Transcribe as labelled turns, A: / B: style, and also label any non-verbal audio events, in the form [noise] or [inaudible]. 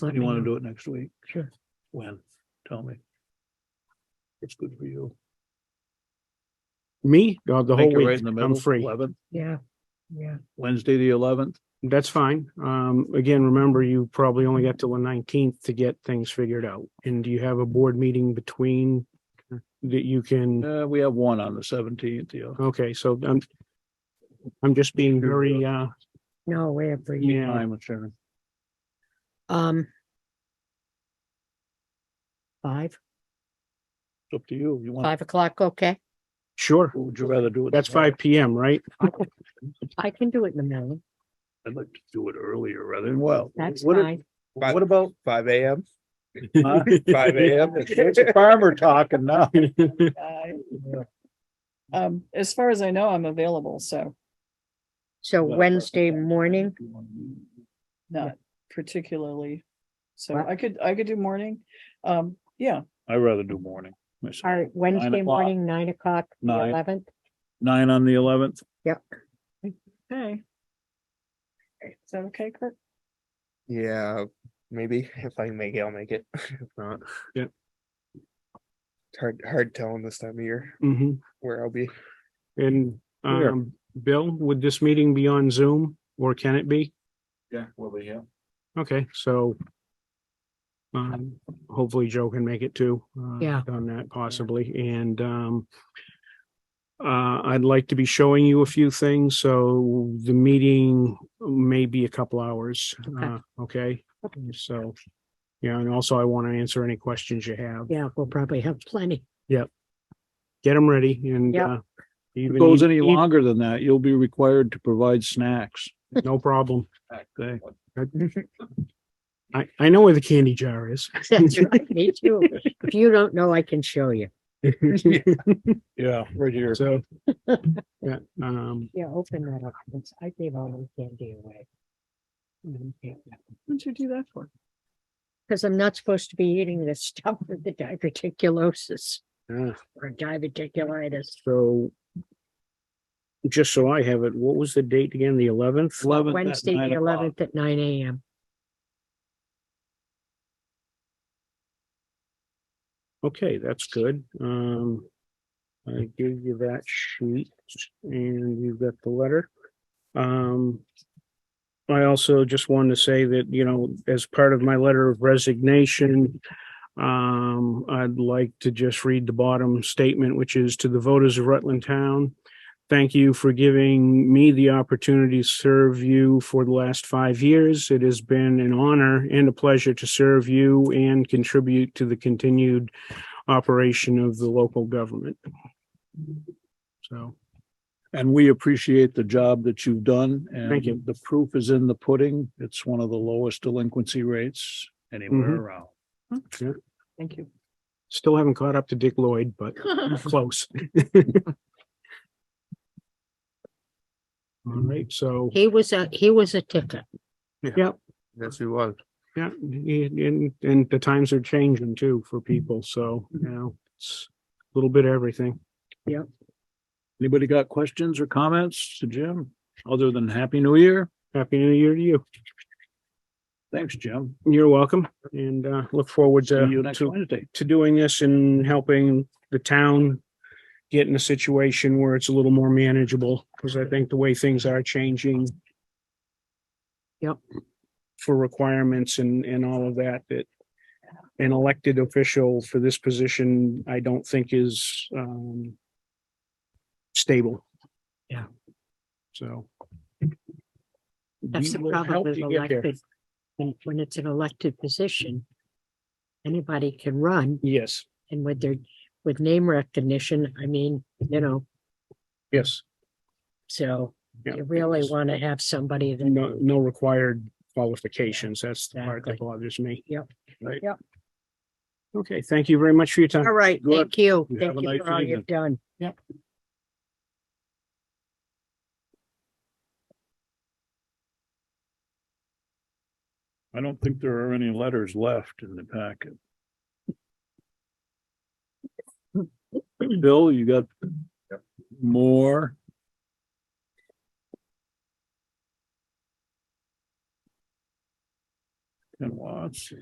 A: If
B: Let
A: you
B: me
A: want to do
B: know.
A: it next week,
B: Sure.
A: when, tell me. It's good for you.
C: Me, Uh, the whole
A: Make it right
C: week,
A: in the
C: I'm
A: middle,
C: free.
A: 11th,
B: Yeah, yeah.
A: Wednesday, the eleventh.
C: That's fine. Um, again, remember, you probably only got till the nineteenth to get things figured out. And do you have a board meeting between that you can,
A: Uh, we have one on the seventeenth, yeah.
C: okay, so I'm I'm just being
A: Sure.
C: very, uh,
B: No, way up for you.
C: yeah,
A: I'm with uh, Sharon.
B: Um. Five,
A: It's up to you. You want,
B: five o'clock, okay.
C: sure.
A: would you rather do it?
C: That's
A: tomorrow?
C: five PM, right?
B: I can do it in the middle.
A: [laughs] I'd like to do it earlier rather than well.
B: That's
A: what if-
B: fine.
A: What about?
D: Five AM,
A: [laughs] huh? [laughs]
D: five AM.
A: It's a farmer talking [laughs] now.
C: [laughs]
E: I- Um, as far as I know, I'm available, so
B: So Wednesday morning,
E: not particularly. So
B: What?
E: I could, I could do morning. Um, yeah,
A: I'd rather do morning. myself.
B: all right, Wednesday
A: o'clock.
B: morning, nine o'clock, the
A: Nine.
B: eleventh.
A: Nine on the eleventh?
B: Yep,
E: hey. Is that okay, Kurt?
D: Yeah, maybe [laughs] if I can make it, I'll make it. [laughs] If not.
C: Yeah.
D: It's Hard, hard telling this time of year
C: hmm
D: where I'll be.
C: And,
A: Sure.
C: um, Bill, would this meeting be on Zoom or can it be?
A: Yeah, we'll be here.
C: Okay, so um, hopefully Joe can make it too. uh,
B: Yeah.
C: On that possibly, and um, uh, I'd like to be showing you a few things, so the meeting may be a couple hours,
B: Okay.
C: uh, okay? So, yeah, and also I want to answer any questions you have.
B: yeah, we'll probably have plenty.
C: Get them ready and
B: Yep.
C: uh,
A: If
C: even
A: it goes any
C: eat-
A: longer than that, you'll be required to provide snacks.
C: eat- No problem.
A: Okay.
B: [laughs]
C: I, I know where the candy jar is.
B: [laughs]
A: [laughs]
B: That's right, me too. If you don't know, I can show you.
A: Yeah, right here.
C: So, yeah, um,
B: Yeah, open that up. It's- I gave all my candy away. Mm, Because
E: What'd you do that for?
B: I'm not supposed to be eating this stuff with the diverticulosis
C: yeah.
B: or diverticulitis.
C: So just so I have it, what was the date again? The eleventh?
A: Eleventh. at
B: Wednesday,
A: nine
B: the
A: o'clock.
B: eleventh at nine AM.
C: Okay, that's good. Um, I gave you that sheet and you've got the letter. Um, I also just wanted to say that, you know, as part of my letter of resignation, um, I'd like to just read the bottom statement, which is to the voters of Rutland Town. Thank you for giving me the opportunity to serve you for the last five years. It has been an honor and a pleasure to serve you and contribute to the continued operation of the local government. So,
A: And we appreciate the job that you've done. and
C: Thank you.
A: The proof is in the pudding. It's one of the lowest delinquency rates anywhere
C: Mhm.
A: around.
E: Thank you.
C: still haven't caught up to Dick Lloyd, but [laughs] close. All right, so,
B: He was a, he was a ticket.
C: yeah,
D: Yes, we was.
C: yeah, and, and the times are changing too for people, so, you know, it's a little bit of everything.
A: Anybody got questions or comments to Jim? Other than Happy New Year?
C: Happy New Year to you.
A: Thanks, Jim.
C: You're welcome, and, uh, look forward
A: See
C: to.
A: you next
C: to-
A: Wednesday.
C: to doing this and helping the town get in a situation where it's a little more manageable, because I think the way things are changing.
B: Yep.
C: For requirements and, and all of that, that an elected official for this position, I don't think is, um, stable.
B: Yeah.
C: So.
B: That's the
C: We will
B: problem
C: help
B: with
C: you get there.
B: elected. When, when it's an elected position, anybody can run
C: Yes,
B: and with their, with name recognition, I mean, you know,
C: yes,
B: so
C: Yeah.
B: you really want to have somebody that
C: no, no required qualifications. That's the part that
B: Exactly.
C: bothers me.
A: Right.
C: Okay, thank you very much for your time.
B: All right,
A: Good.
B: thank you.
A: You have
B: Thank
A: a
B: you
A: nice
B: for all
A: evening.
B: you've done.
C: Yep.
A: I don't think there are any letters left in the packet. [laughs] Bill, you got more? and Watts.